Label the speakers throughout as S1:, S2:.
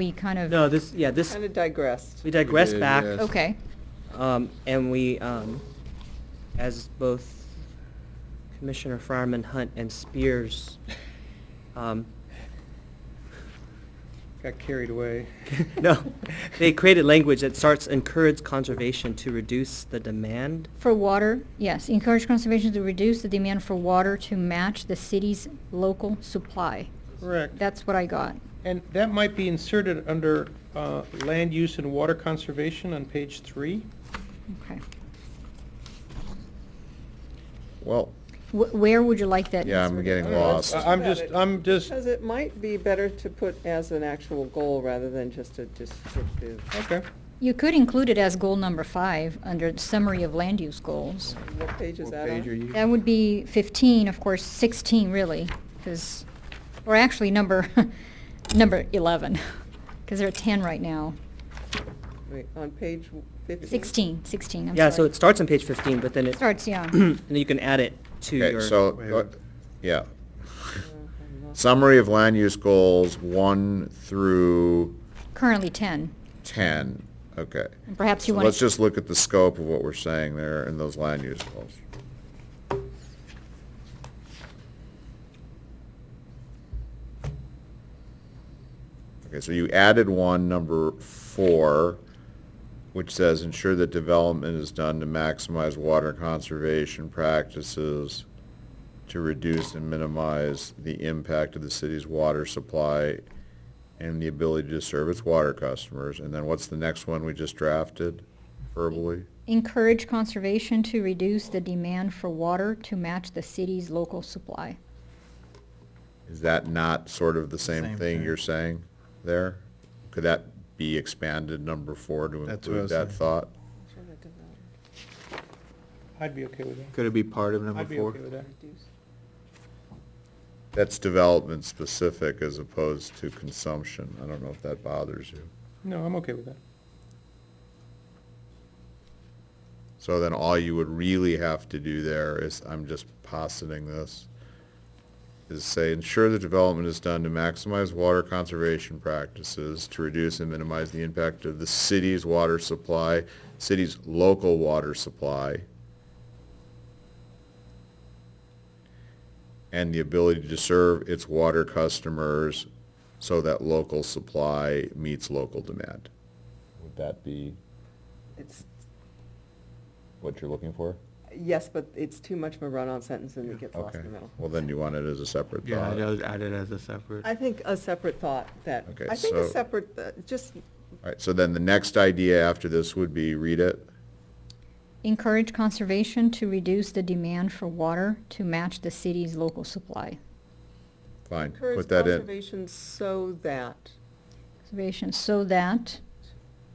S1: we kind of.
S2: No, this, yeah, this,
S3: Kind of digressed.
S2: we digress
S4: We did,
S2: back.
S4: yes.
S1: Okay,
S2: Um, and we, um, as both Commissioner Fireman Hunt and Spears, um,
S4: Got carried away.
S2: no, they created language that starts encourage conservation to reduce the demand.
S1: for water, yes, encourage conservation to reduce the demand for water to match the city's local supply.
S5: Correct.
S1: That's what I got.
S5: And that might be inserted under uh, land use and water conservation on page three.
S1: Okay.
S4: Well,
S1: Wh- Where would you like that?
S4: Yeah, I'm
S1: inserted?
S4: getting lost.
S5: I- Uh, I'm just, I'm just,
S3: Because it might be better to put as an actual goal rather than just a descriptive.
S5: okay.
S1: You could include it as goal number five, under summary of land use goals.
S3: What page is
S4: what
S3: that
S4: page are
S3: on?
S4: you?
S1: That would be fifteen, of course, sixteen really, because, or actually number, number eleven, because there are ten right now.
S3: Wait, On page fifteen?
S1: 16, 16, I'm sorry.
S2: Yeah, so it starts on page fifteen, but then it,
S1: Starts, yeah.
S2: and then you can add it to
S4: Okay,
S2: your.
S4: so,
S5: Wait.
S4: uh, yeah.
S3: Uh, I'm not-
S4: Summary of land use goals one through
S1: Currently 10.
S4: ten, okay.
S1: And perhaps
S4: So
S1: you want to...
S4: let's just look at the scope of what we're saying there in those land use goals. Okay, so you added one, number four, which says ensure that development is done to maximize water conservation practices to reduce and minimize the impact of the city's water supply and the ability to serve its water customers. And then what's the next one we just drafted verbally?
S1: Encourage conservation to reduce the demand for water to match the city's local supply.
S4: Is that not sort of the same
S6: Same
S4: thing
S6: thing.
S4: you're saying there? Could that be expanded number four to
S6: That's what I
S4: include
S6: was
S4: that
S6: saying.
S4: thought?
S3: Sure, I did not
S5: I'd be okay with that.
S6: Could it be part of number
S5: I'd be okay
S6: four?
S5: with that.
S3: reduce.
S4: That's development specific as opposed to consumption. I don't know if that bothers you.
S5: No, I'm okay with that.
S4: So then all you would really have to do there is, I'm just positing this, is say ensure the development is done to maximize water conservation practices to reduce and minimize the impact of the city's water supply, city's local water supply, and the ability to serve its water customers so that local supply meets local demand. Would that be
S3: It's,
S4: what you're looking for?
S3: yes, but it's too much of a run-on sentence and it gets lost
S4: Okay,
S3: in the middle.
S4: well, then you want it as a separate
S6: Yeah,
S4: thought?
S6: I'd add- add it as a separate.
S3: I think a separate thought that,
S4: Okay,
S3: I think a
S4: so-
S3: separate, uh, just,
S4: All right, so then the next idea after this would be, read it,
S1: Encourage conservation to reduce the demand for water to match the city's local supply.
S4: fine,
S3: encourage
S4: put that in.
S3: conservation so that,
S1: Conservation so that,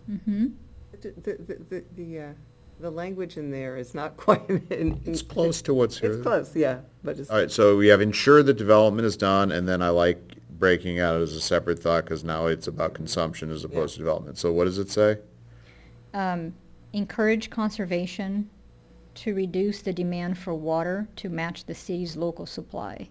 S1: hmm
S3: the, the- the, the, the, uh, the language in there is not quite. in-
S4: It's close to what's here.
S3: It's close, yeah, but it's.
S4: All right, so we have ensure that development is done, and then I like breaking out as a separate thought, because now it's about consumption as opposed to development. So what does it say?
S1: um, encourage conservation to reduce the demand for water to match the city's local supply.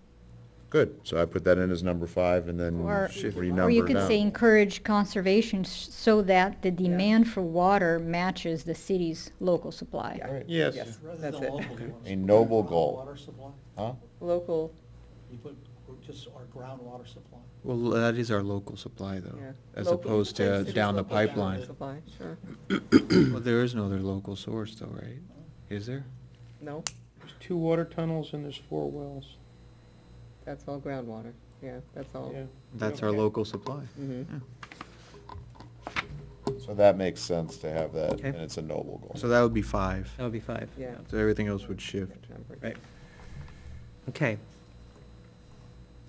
S4: Good, so I put that in as number five, and then
S1: Or-
S4: renumber
S1: Or you could
S4: down.
S1: say encourage conservation s- so that the demand for water matches the city's local supply.
S3: Yeah.
S5: Yes.
S3: That's it.
S4: A noble goal.
S7: Water supply,
S4: Huh?
S3: Local,
S7: you put just our groundwater supply.
S6: Well, that is our local supply though,
S3: yeah.
S6: as
S3: Local-
S6: opposed to
S3: it's
S6: down the
S3: local down
S6: pipeline.
S3: Supply, sure,
S6: Well, there is no other local source though, right? Is there?
S3: no,
S5: There's two water tunnels and there's four wells.
S3: that's all groundwater, yeah, that's all.
S5: Yeah.
S6: That's our
S5: Okay.
S6: local supply.
S3: Mhm.
S6: Yeah.
S4: So that makes sense to have that,
S2: Okay.
S4: and it's a noble goal.
S6: So that would be five.
S2: That would be five.
S3: Yeah.
S6: So everything else would shift.
S3: Number.
S2: Right. Okay.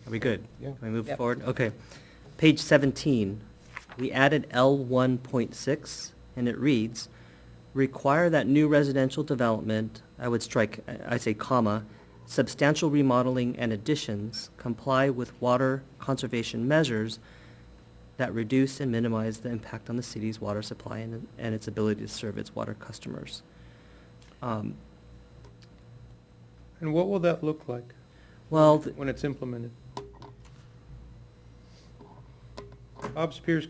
S2: Are we good?
S4: Yeah.
S2: Can we move
S3: Yep.
S2: forward? Okay. Page seventeen, we added L one point six, and it reads, require that new residential development, I would strike, I- I say comma, substantial remodeling and additions comply with water conservation measures that reduce and minimize the impact on the city's water supply and, and its ability to serve its water customers. Um,
S5: And what will that look like
S2: Well, th-
S5: when it's implemented? Bob Spears